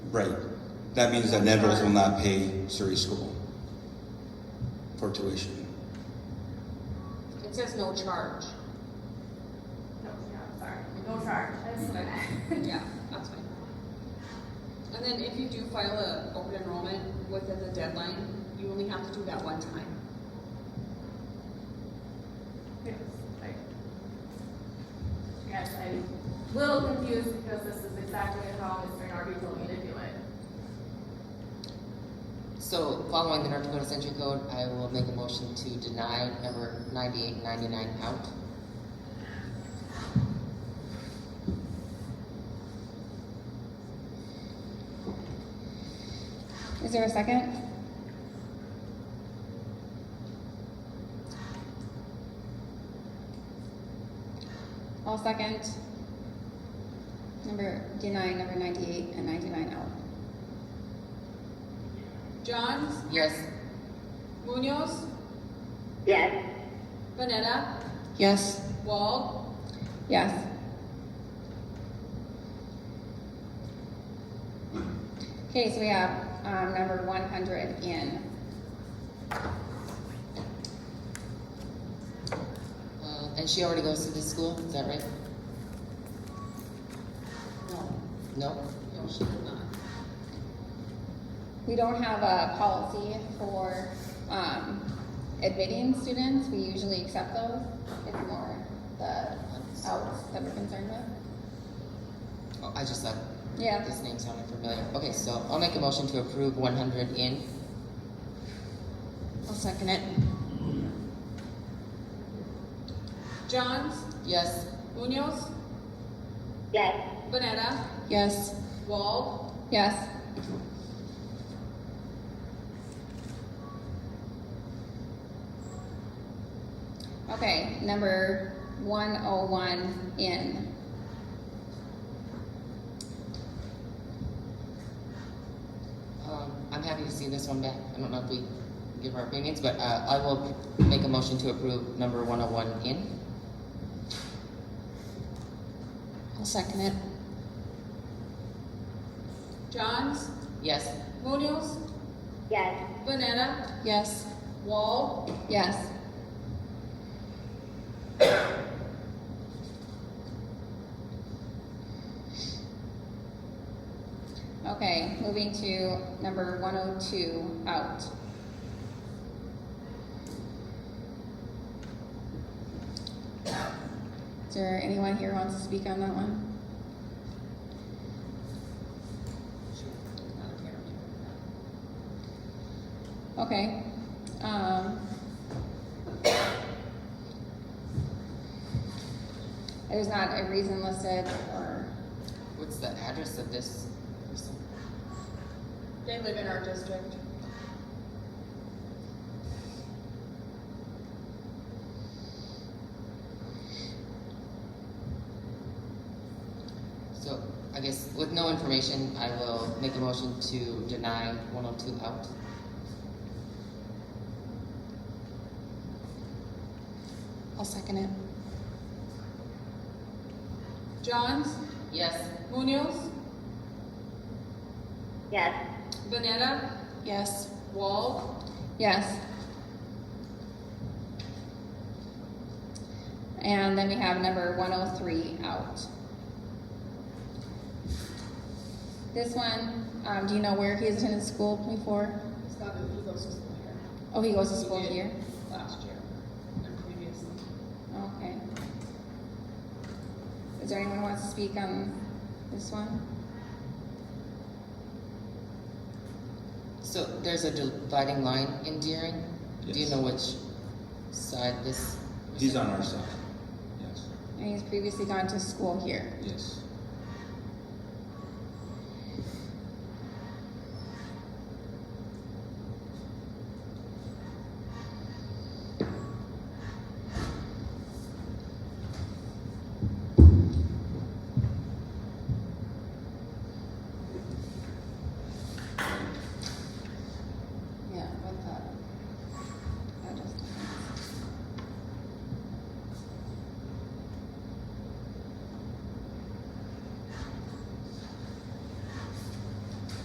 Right. That means that Nevers will not pay Surrey School for tuition. It says no charge. No, no, sorry, no charge, that's what I meant. Yeah, that's fine. And then if you do file a open enrollment within the deadline, you only have to do that one time. Yes, I- Yes, I'm a little confused because this is exactly how Mr. Narby told me to do it. So following the North Dakota Century Code, I will make a motion to deny number ninety-eight and ninety-nine out. Is there a second? I'll second. Number denying number ninety-eight and ninety-nine out. Johns, Yes? Munoz, yes, Vanetta, Yes. Wald, Yes. Okay, so we have, um, number one hundred in. Uh, and she already goes to this school, is that right? no, No? no, she did not. We don't have a policy for, um, admitting students, we usually accept those, it's more the outs that we're concerned with. Oh, I just thought Yeah, this name sounded familiar. Okay, so I'll make a motion to approve one hundred in. I'll second it. Johns, Yes? Munoz, yes, Vanetta, Yes. Wald, Yes. Okay, number one oh one in. Um, I'm happy to see this one back. I don't know if we give our opinions, but, uh, I will make a motion to approve number one oh one in. I'll second it. Johns, Yes? Munoz, yes, Vanetta, Yes. Wald, Yes. Okay, moving to number one oh two, out. Is there anyone here who wants to speak on that one? Okay, um. There's not a reason listed or, What's the address of this person? they live in our district. So I guess with no information, I will make a motion to deny 102 out. I'll second it. Johns, Yes, Munoz, yes, Vanetta, Yes. Wald, Yes. And then we have number one oh three out. This one, um, do you know where he has attended school before? Scott, he goes to school here. Oh, he goes to school He did here? Last year, and previously. Okay. Is there anyone who wants to speak on this one? so there's a dividing line in Deering? Do you Yes. know which side this? He's on our side. Yes, And he's previously gone to school here. yes.